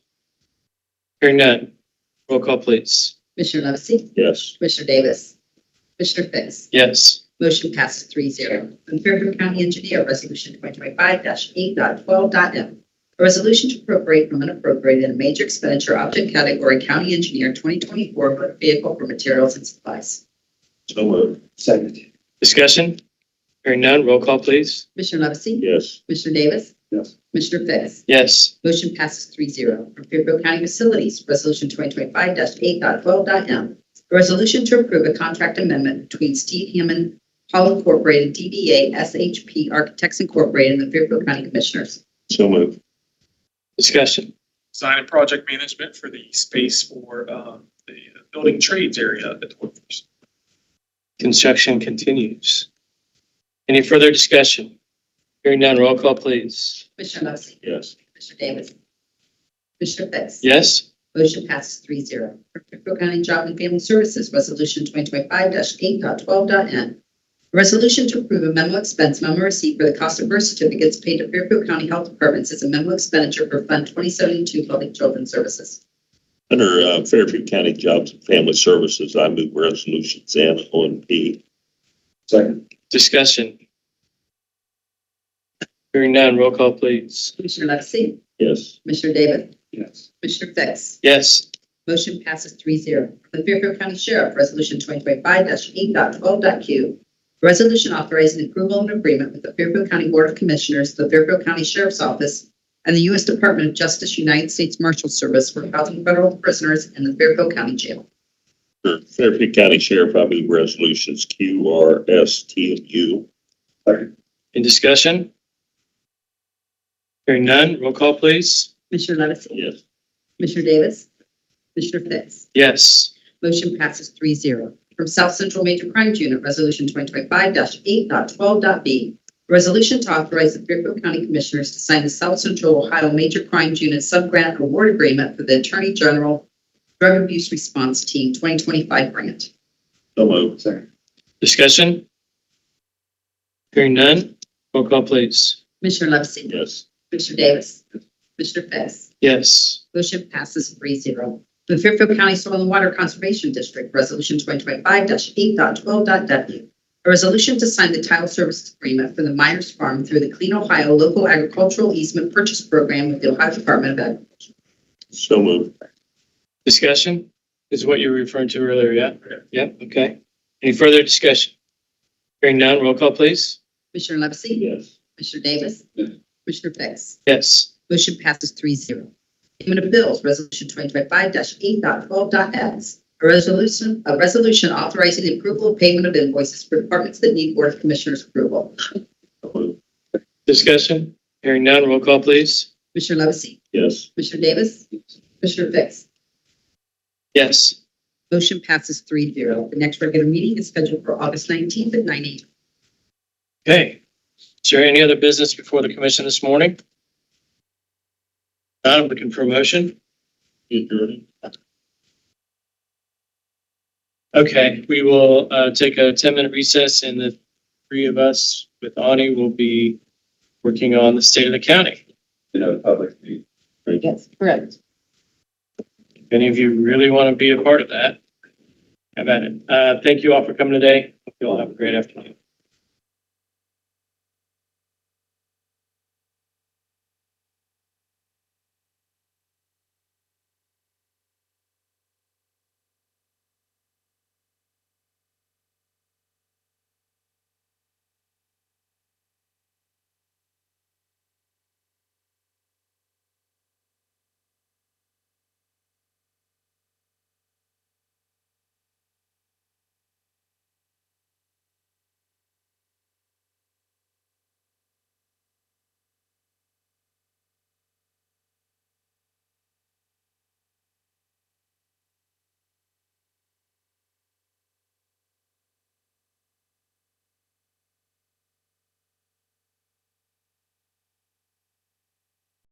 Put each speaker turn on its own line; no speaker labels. Hearing none. Roll call, please.
Commissioner Levesey?
Yes.
Commissioner Davis? Commissioner Fix?
Yes.
Motion passes three zero. From Fairfield County Engineer, Resolution 2025-8.12.m. A resolution to appropriate from unappropriated in a major expenditure object category County Engineer 2024 motor vehicle for materials and supplies.
So moved.
Second.
Discussion? Hearing none. Roll call, please.
Commissioner Levesey?
Yes.
Commissioner Davis?
Yes.
Commissioner Fix?
Yes.
Motion passes 3-0 From Fairfield County Facilities, Resolution 2025-8.12.m. A resolution to approve a contract amendment between Steve Hammond Hall Incorporated, DBA SHP Architects Incorporated, and the Fairfield County Commissioners.
So moved.
Discussion?
design and project management for the space for um, the building trades area at the workforce.
Construction continues. Any further discussion? Hearing none. Roll call, please.
Commissioner Levesey?
Yes.
Commissioner Davis? Commissioner Fix?
Yes.
Motion passes 3-0 From Fairfield County Job and Family Services, Resolution 2025-8.12.n. A resolution to approve a memo expense memo receipt for the cost of birth certificates paid to Fairfield County Health Departments as a memo expenditure for Fund 2072 Public Children's Services.
Under uh, Fairfield County Jobs and Family Services, I move resolutions N, O, and P.
Second.
Discussion? Hearing none. Roll call, please.
Commissioner Levesey?
Yes.
Commissioner Davis?
Yes.
Commissioner Fix?
Yes.
Motion passes three zero. The Fairfield County Sheriff, Resolution 2025-8.12.q. a Resolution authorizing approval of an agreement with the Fairfield County Board of Commissioners, the Fairfield County Sheriff's Office, and the U.S. Department of Justice United States Marshal Service for housing federal prisoners in the Fairfield County Jail.
Under Fairfield County Sheriff, I move resolutions Q, R, S, T, and U.
Second.
In discussion? Hearing none. Roll call, please.
Commissioner Levesey?
Yes.
Commissioner Davis? Commissioner Fix?
Yes.
Motion passes three zero. From South Central Major Crimes Unit, Resolution 2025-8.12.b. Resolution to authorize the Fairfield County Commissioners to sign the South Central Ohio Major Crimes Unit Subgrant Award Agreement for the Attorney General Drug Abuse Response Team 2025 Grant.
So moved.
Second.
Discussion? Hearing none. Roll call, please.
Commissioner Levesey?
Yes.
Commissioner Davis? Commissioner Fix?
Yes.
Motion passes three zero. The Fairfield County Soil and Water Conservation District, Resolution 2025-8.12.w. A resolution to sign the title service agreement for the Myers Farm through the Clean Ohio Local Agricultural Easement Purchase Program with the Ohio Department of Ag.
So moved.
Discussion is what you were referring to earlier, yeah? Yep, okay. Any further discussion? Hearing none, roll call, please.
Commissioner Levesey?
Yes.
Commissioner Davis?
Yes.
Commissioner Fix?
Yes.
Motion passes three zero. Payment of bills, resolution twenty twenty five dash eight dot twelve dot S. A resolution, a resolution authorizing the approval of payment of invoices for departments that need Board of Commissioners approval.
So moved.
Discussion? Hearing none, roll call, please.
Commissioner Levesey?
Yes.
Commissioner Davis? Commissioner Fix?
Yes.
Motion passes three zero. The next regular meeting is scheduled for August nineteenth at nine AM.
Okay. Is there any other business before the commission this morning? Not looking for a motion.
Adjourned.
Okay, we will uh, take a 10-minute recess and the three of us with Ani will be working on the state of the county.
You know, public meeting.
Yes, correct.
If any of you really want to be a part of that, have at it. Uh, Thank you all for coming today. Hope you all have a great afternoon.